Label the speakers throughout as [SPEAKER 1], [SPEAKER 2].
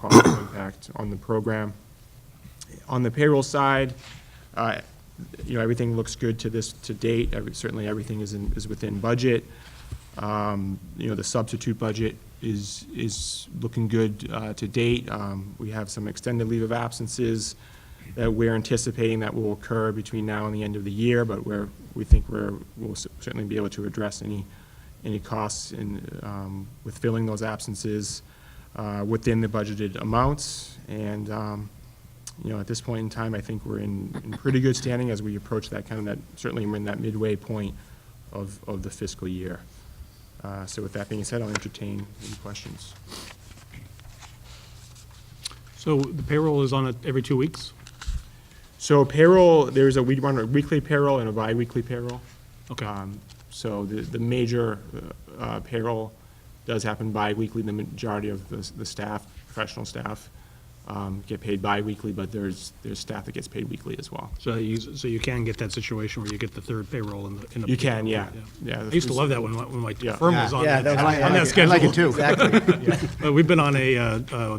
[SPEAKER 1] positive impact on the program. On the payroll side, uh, you know, everything looks good to this, to date. Every- Certainly, everything is in, is within budget. Um, You know, the substitute budget is, is looking good uh, to date. Um, We have some extended leave of absences that we're anticipating that will occur between now and the end of the year, but we're, we think we're, we'll certainly be able to address any, any costs in, um, with filling those absences uh, within the budgeted amounts. And, um, you know, at this point in time, I think we're in, in pretty good standing as we approach that kind of that, certainly we're in that midway point of, of the fiscal year. Uh, So with that being said, I'll entertain any questions.
[SPEAKER 2] So the payroll is on it every two weeks?
[SPEAKER 1] So payroll, there's a, we run a weekly payroll and a bi-weekly payroll.
[SPEAKER 2] Okay.
[SPEAKER 1] Um, So the, the major uh, uh, payroll does happen bi-weekly. The majority of the, the staff, professional staff, um, get paid bi-weekly, but there's, there's staff that gets paid weekly as well.
[SPEAKER 2] So you, so you can get that situation where you get the third payroll in the, in the.
[SPEAKER 1] You can, yeah, yeah.
[SPEAKER 2] I used to love that when, my- when my
[SPEAKER 1] Yeah.
[SPEAKER 2] firm was on
[SPEAKER 3] Yeah,
[SPEAKER 2] that,
[SPEAKER 3] that was my-
[SPEAKER 2] on
[SPEAKER 3] I
[SPEAKER 2] that
[SPEAKER 3] like it- I like it
[SPEAKER 2] schedule.
[SPEAKER 3] too. Exactly.
[SPEAKER 2] But we've been on a, uh, uh,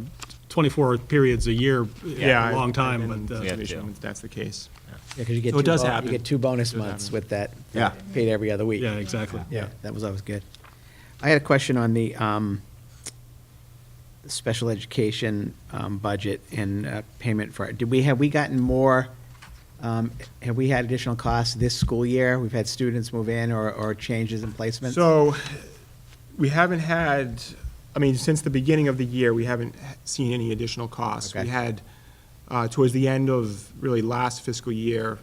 [SPEAKER 2] twenty-four periods a year,
[SPEAKER 1] Yeah,
[SPEAKER 2] yeah, a long time, but, uh,
[SPEAKER 1] if that's the case.
[SPEAKER 4] Yeah, because you get
[SPEAKER 1] So it
[SPEAKER 4] two,
[SPEAKER 1] does
[SPEAKER 4] bon-
[SPEAKER 1] happen.
[SPEAKER 4] you get two bonus
[SPEAKER 1] It does
[SPEAKER 4] months
[SPEAKER 1] happen.
[SPEAKER 4] with that.
[SPEAKER 3] Yeah.
[SPEAKER 4] Paid every other week.
[SPEAKER 2] yeah, exactly.
[SPEAKER 4] Yeah, that was always good. I had a question on the um, special education um, budget and uh, payment for, it. did we, have we gotten more, um, have we had additional costs this school year? We've had students move in or, or changes in placements?
[SPEAKER 1] So, we haven't had, I mean, since the beginning of the year, we haven't h- seen any additional costs. We
[SPEAKER 4] Okay.
[SPEAKER 1] had, uh, towards the end of really last fiscal year,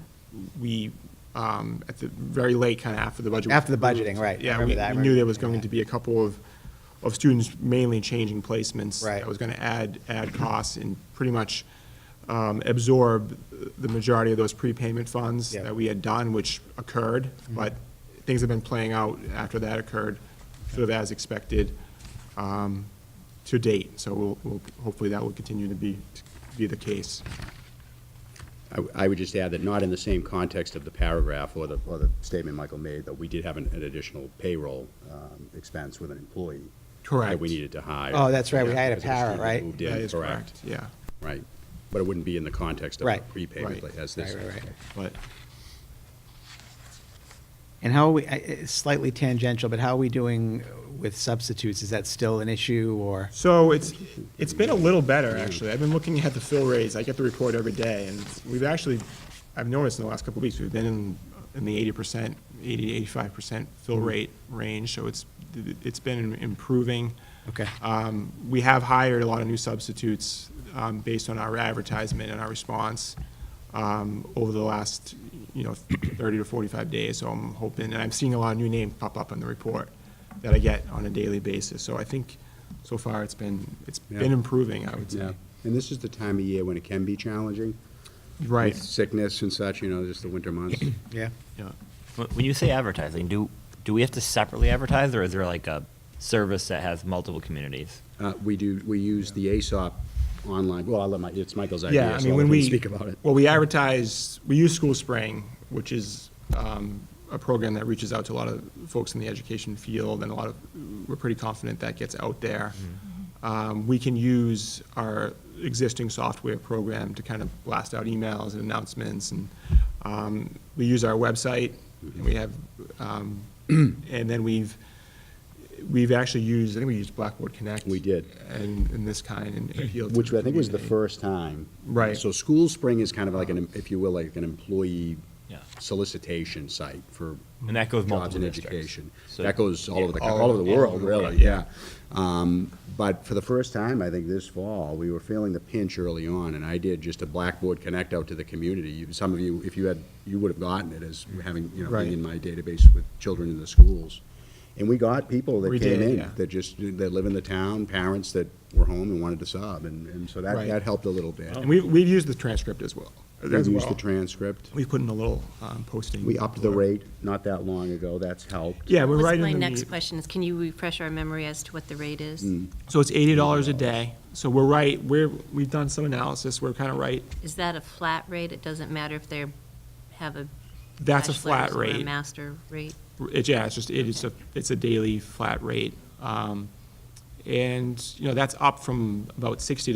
[SPEAKER 1] we, um, at the very late, kind of after the budget. was
[SPEAKER 4] After the budgeting,
[SPEAKER 1] approved,
[SPEAKER 4] right. I
[SPEAKER 1] Yeah,
[SPEAKER 4] remember
[SPEAKER 1] we
[SPEAKER 4] that. I
[SPEAKER 1] we knew there
[SPEAKER 4] remember
[SPEAKER 1] was going
[SPEAKER 4] that.
[SPEAKER 1] to be a couple of, of students mainly changing placements.
[SPEAKER 4] Right.
[SPEAKER 1] That was going to add, add costs and pretty much um, absorb the majority of those prepayment funds
[SPEAKER 4] Yeah.
[SPEAKER 1] that we had done, which occurred, but things have been playing out after that occurred, sort of as expected um, to date. So we'll, we'll- hopefully that will continue to be, to be the case.
[SPEAKER 5] I w- I would just add that not in the same context of the paragraph or the, or the statement Michael made, that we did have an an additional payroll um, expense with an employee. That
[SPEAKER 1] Correct.
[SPEAKER 5] we needed to hire.
[SPEAKER 4] Oh, that's right, we
[SPEAKER 5] Yeah,
[SPEAKER 4] hired a
[SPEAKER 5] because of the
[SPEAKER 4] para,
[SPEAKER 5] student that
[SPEAKER 4] right?
[SPEAKER 5] Moved
[SPEAKER 1] That
[SPEAKER 5] in,
[SPEAKER 1] is
[SPEAKER 5] correct,
[SPEAKER 1] Yeah,
[SPEAKER 5] right. But it wouldn't be in the context of a
[SPEAKER 4] Right.
[SPEAKER 5] prepayment
[SPEAKER 1] Right.
[SPEAKER 5] as this.
[SPEAKER 4] Right, right, right.
[SPEAKER 1] but
[SPEAKER 4] And how are we, I- it's slightly tangential, but how are we doing with substitutes? Is that still an issue or?
[SPEAKER 1] So it's, it's been a little better, actually. I've been looking at the fill rates. I get the report every day, and we've actually, I've noticed in the last couple of weeks, we've been in, in the eighty percent, eighty to eighty-five percent fill rate range, so it's, it's been improving.
[SPEAKER 4] Okay.
[SPEAKER 1] Um, We have hired a lot of new substitutes um, based on our advertisement and our response um, over the last, you know, 30 to 45 days. So I'm hoping, and I'm seeing a lot of new names pop up in the report that I get on a daily basis. So I think so far it's been, it's been
[SPEAKER 5] Yeah.
[SPEAKER 1] improving, I would
[SPEAKER 5] Yeah,
[SPEAKER 1] say.
[SPEAKER 5] and this is the time of year when it can be challenging.
[SPEAKER 1] Right.
[SPEAKER 5] With Sickness and such, you know, just the winter months.
[SPEAKER 4] Yeah.
[SPEAKER 1] Yeah.
[SPEAKER 6] Wh- When you say advertising, do do we have to separately advertise, or is there like a service that has multiple communities?
[SPEAKER 5] Uh, We do, we use the ASOP online, well, I'll let my, it's Michael's idea,
[SPEAKER 1] Yeah, I
[SPEAKER 5] so
[SPEAKER 1] mean,
[SPEAKER 5] I'll
[SPEAKER 1] when
[SPEAKER 5] let him
[SPEAKER 1] we.
[SPEAKER 5] speak about it.
[SPEAKER 1] Well, we advertise, we use School Spring, which is um, a program that reaches out to a lot of folks in the education field, and a lot of, we're pretty confident that gets out there.
[SPEAKER 5] Mm-hmm.
[SPEAKER 1] Um, We can use our existing software program to kind of blast out emails and announcements, and um, we use our website, and we have, um, and then we've, we've actually used, I think we used Blackboard Connect.
[SPEAKER 5] We did.
[SPEAKER 1] And, and this kind, and appeal to.
[SPEAKER 5] Which I think was the
[SPEAKER 1] community.
[SPEAKER 5] first time.
[SPEAKER 1] Right.
[SPEAKER 5] So School Spring is kind of like an, if you will, like an employee
[SPEAKER 6] Yeah.
[SPEAKER 5] solicitation site for.
[SPEAKER 6] And that goes
[SPEAKER 5] Jobs
[SPEAKER 6] multiple
[SPEAKER 5] and
[SPEAKER 6] districts.
[SPEAKER 5] education.
[SPEAKER 6] So-
[SPEAKER 5] That goes all over the,
[SPEAKER 1] Yeah, all
[SPEAKER 5] all over the
[SPEAKER 1] over-
[SPEAKER 5] world,
[SPEAKER 1] yeah.
[SPEAKER 5] really, yeah. Um, But for the first time, I think this fall, we were feeling the pinch early on, and I did just a Blackboard Connect out to the community. You- Some of you, if you had, you would have gotten it as having, you know,
[SPEAKER 1] Right.
[SPEAKER 5] being in my database with children in the schools. And we got people that
[SPEAKER 1] We
[SPEAKER 5] came
[SPEAKER 1] did,
[SPEAKER 5] in,
[SPEAKER 1] yeah.
[SPEAKER 5] that just, that live in the town, parents that were home and wanted to sub, and, and so that,
[SPEAKER 1] Right.
[SPEAKER 5] that helped a little bit.
[SPEAKER 1] And we, we've used the transcript as well. as
[SPEAKER 5] We used
[SPEAKER 1] well.
[SPEAKER 5] the transcript.
[SPEAKER 1] We put in a little um, posting.
[SPEAKER 5] We upped the rate not that long ago, that's helped.
[SPEAKER 1] Yeah, we're
[SPEAKER 7] That was
[SPEAKER 1] right in the
[SPEAKER 7] My next
[SPEAKER 1] meat.
[SPEAKER 7] question is, can you refresh our memory as to what the rate is?
[SPEAKER 1] So it's eighty dollars a day. So we're right, we're, we've done some analysis, we're kind of right.
[SPEAKER 7] Is that a flat rate? It doesn't matter if they have a
[SPEAKER 1] That's a
[SPEAKER 7] bachelor's
[SPEAKER 1] flat
[SPEAKER 7] or a
[SPEAKER 1] rate.
[SPEAKER 7] master rate?
[SPEAKER 1] It, yeah, it's just, it is a, it's a daily flat rate. Um, And, you know, that's up from about sixty